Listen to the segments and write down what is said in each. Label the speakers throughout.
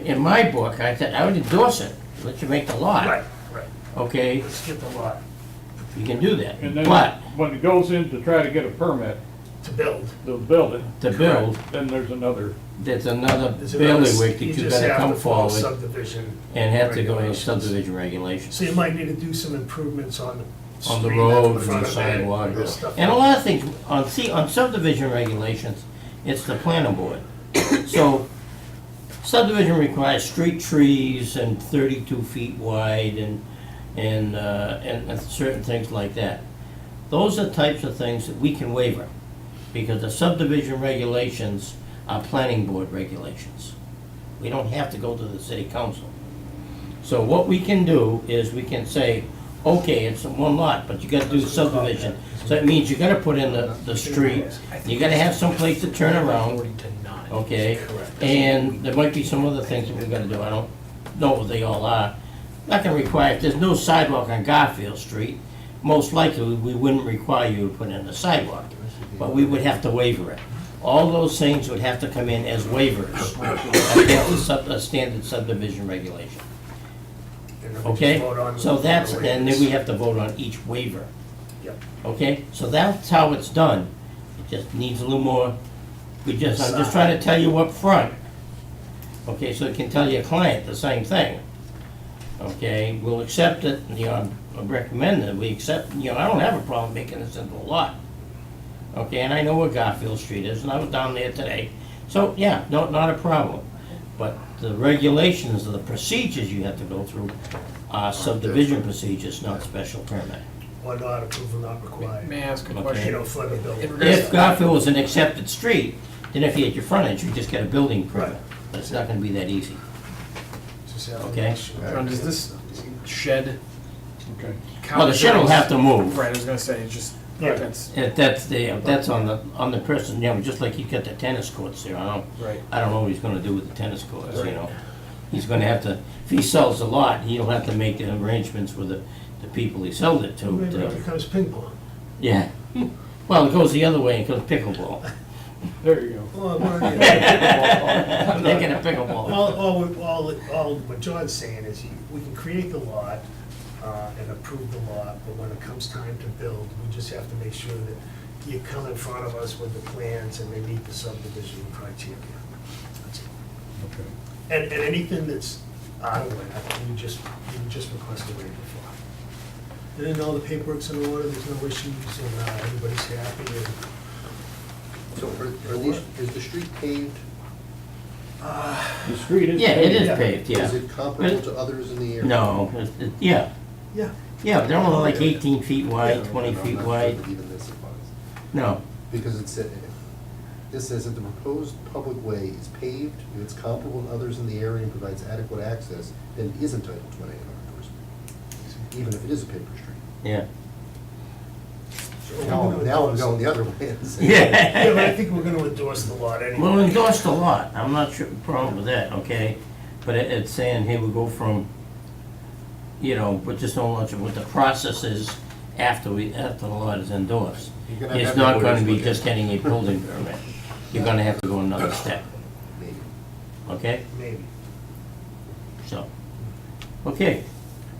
Speaker 1: in my book, I said, I would endorse it, let you make the lot.
Speaker 2: Right, right.
Speaker 1: Okay,
Speaker 2: Let's get the lot
Speaker 1: you can do that,
Speaker 3: And then
Speaker 1: but
Speaker 3: when it goes in to try to get a permit
Speaker 2: to build.
Speaker 3: to build it,
Speaker 1: to build,
Speaker 3: then there's another,
Speaker 1: there's another
Speaker 2: There's another s-
Speaker 1: bailiwick that you
Speaker 2: just
Speaker 1: gotta
Speaker 2: have
Speaker 1: come
Speaker 2: to follow
Speaker 1: forward
Speaker 2: Subdivision.
Speaker 1: and have to go in
Speaker 2: regulations.
Speaker 1: subdivision regulations.
Speaker 2: So you might need to do some improvements on the
Speaker 1: on the
Speaker 2: street, in
Speaker 1: roads and
Speaker 2: front
Speaker 1: the
Speaker 2: of it,
Speaker 1: sidewalk.
Speaker 2: and this stuff.
Speaker 1: And a lot of things, on, see, on subdivision regulations, it's the planning board. So subdivision requires street trees and thirty-two feet wide and, and, uh, and and certain things like that. Those are types of things that we can waiver, because the subdivision regulations are planning board regulations. We don't have to go to the city council. So what we can do is we can say, okay, it's one lot, but you gotta do subdivision. So it means you gotta put in the, the street, you gotta have some place to turn around,
Speaker 4: Forty to nine.
Speaker 1: okay? And there might be some other things that we're gonna do, I don't know what they all are. Not gonna require, if there's no sidewalk on Garfield Street, most likely, we wouldn't require you to put in the sidewalk, but we would have to waiver it. All those things would have to come in as waivers, against the sub, a standard subdivision regulation.
Speaker 2: And then we
Speaker 1: Okay,
Speaker 2: just vote on
Speaker 1: so
Speaker 2: the
Speaker 1: that's, and then
Speaker 2: waivers.
Speaker 1: we have to vote on each waiver,
Speaker 2: Yep.
Speaker 1: okay? So that's how it's done. It just needs a little more, we just, I'm just trying to tell you up front. Okay, so it can tell your client the same thing. Okay, we'll accept it, you know, I recommend that we accept, you know, I don't have a problem making this into a lot. Okay, and I know where Garfield Street is, and I was down there today. So, yeah, no, not a problem. But the regulations or the procedures you have to go through are subdivision procedures, not special permit.
Speaker 2: Or not approval not required,
Speaker 4: May I ask a
Speaker 1: Okay.
Speaker 2: you
Speaker 4: question?
Speaker 2: know, for the
Speaker 4: In
Speaker 2: building.
Speaker 4: regards
Speaker 1: If
Speaker 4: to-
Speaker 1: Garfield was an accepted street, then if you had your frontage, you just get a building permit.
Speaker 2: Right.
Speaker 1: But it's not gonna be that easy.
Speaker 2: Just have
Speaker 1: Okay.
Speaker 2: an issue.
Speaker 4: John, does this shed?
Speaker 3: okay.
Speaker 4: count
Speaker 1: Well, the shed will
Speaker 4: towards-
Speaker 1: have to move.
Speaker 4: Right, I was gonna say, it's just,
Speaker 2: Yeah.
Speaker 4: that's,
Speaker 1: If that's the, if that's on the, on the person, you know, just like you got the tennis courts there, I don't,
Speaker 4: right.
Speaker 1: I don't know what he's gonna do with the tennis courts, you know? He's gonna have to, if he sells a lot, he'll have to make the arrangements with the, the people he sold it to.
Speaker 2: Maybe it
Speaker 1: to-
Speaker 2: becomes ping pong.
Speaker 1: Yeah. Well, it goes the other way, it goes pickleball.
Speaker 3: There you
Speaker 2: Well,
Speaker 3: go.
Speaker 2: we're-
Speaker 1: They get a pickleball.
Speaker 2: All, all, we- all, all, what John's saying is, you- we can create the lot uh, and approve the lot, but when it comes time to build, we just have to make sure that you come in front of us with the plans and they meet the subdivision criteria. That's it.
Speaker 3: Okay.
Speaker 2: And, and anything that's out of whack, you just, you just request a waiver for. And then all the paperwork's in order, there's no issues, and uh, everybody's happy, and
Speaker 5: So are are these, is the street paved?
Speaker 3: The street is.
Speaker 1: Yeah, it is
Speaker 2: Yeah.
Speaker 1: paved,
Speaker 5: Is
Speaker 1: yeah.
Speaker 5: it comparable to others in the area?
Speaker 1: No, it's- it- yeah,
Speaker 2: Yeah.
Speaker 1: yeah, they're only like eighteen feet wide, twenty
Speaker 5: No, I'm
Speaker 1: feet
Speaker 5: not sure
Speaker 1: wide,
Speaker 5: that Even this applies,
Speaker 1: no.
Speaker 5: because it said, this says that the proposed public way is paved, if it's comparable to others in the area and provides adequate access, then it is entitled to an A and R endorsement, even if it is a paper street.
Speaker 1: Yeah.
Speaker 2: So
Speaker 5: Now,
Speaker 2: we're gonna
Speaker 5: now I'm
Speaker 2: endorse-
Speaker 5: going the other way and saying.
Speaker 1: Yeah.
Speaker 2: Yeah, but I think we're gonna endorse the lot anyway.
Speaker 1: Well, endorsed a lot, I'm not sure, problem with that, okay? But it, it's saying, here we go from, you know, but just don't watch it, what the process is after we, after the lot is endorsed.
Speaker 5: You're gonna
Speaker 1: It's
Speaker 5: have the
Speaker 1: not gonna
Speaker 5: lawyers
Speaker 1: be
Speaker 5: look at
Speaker 1: just getting a building permit, you're gonna have to go another step,
Speaker 5: Maybe.
Speaker 1: okay?
Speaker 2: Maybe,
Speaker 1: So, okay,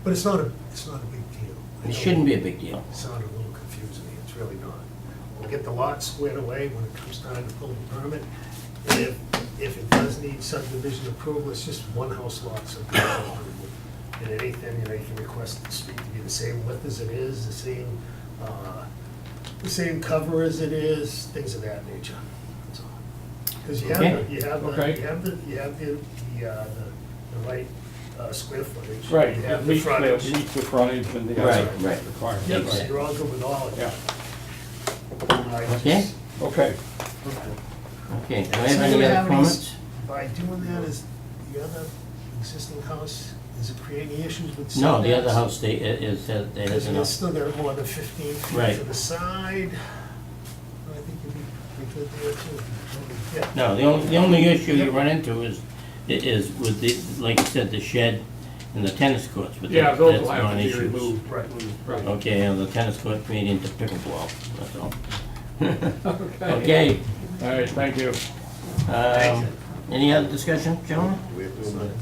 Speaker 2: but it's not a, it's not a big deal. I
Speaker 1: it
Speaker 2: know
Speaker 1: shouldn't be a big deal.
Speaker 2: It sounded a little confusing, it's really not. We'll get the lot squared away when it comes time to pull the permit. And if, if it does need subdivision approval, it's just one house lot subdivision approval. And anything, you know, you can request the street to be the same width as it is, the same, uh, the same cover as it is, things of that nature, that's all. Because you have, the- you have, the
Speaker 3: Okay.
Speaker 2: you have the, you have the, the, uh, the- the right uh, square footage.
Speaker 3: Right,
Speaker 2: You
Speaker 3: it
Speaker 2: have the
Speaker 3: meets the,
Speaker 2: frontage.
Speaker 3: meets the frontage and the
Speaker 1: Right,
Speaker 3: outside
Speaker 1: right.
Speaker 3: requirements.
Speaker 2: Yep, so
Speaker 3: Right.
Speaker 2: you're all good with all of it.
Speaker 3: Yeah,
Speaker 2: I just-
Speaker 1: Okay.
Speaker 3: okay.
Speaker 1: Okay, do I have
Speaker 2: So
Speaker 1: any
Speaker 2: you
Speaker 1: other
Speaker 2: have any s-
Speaker 1: comments?
Speaker 2: By doing that, is the other existing house, is it creating issues with setbacks?
Speaker 1: No, the other house, they, it, it said, it
Speaker 2: Because
Speaker 1: isn't
Speaker 2: you
Speaker 1: up.
Speaker 2: still got more than fifteen feet
Speaker 1: Right.
Speaker 2: to the side. I think you'd be be good there too. Yeah,
Speaker 1: No, the only, the only issue you run into is, is with the, like you said, the shed and the tennis courts, but
Speaker 3: Yeah,
Speaker 1: that's
Speaker 3: those will
Speaker 1: that's
Speaker 3: have to be
Speaker 1: non-issues.
Speaker 3: removed.
Speaker 2: Right.
Speaker 3: Right.
Speaker 1: Okay, and the tennis court made into pickleball, that's all.
Speaker 3: Okay.
Speaker 1: Okay,
Speaker 3: All right, thank you.
Speaker 1: um,
Speaker 6: Any other discussion, gentlemen?
Speaker 1: We have to sign.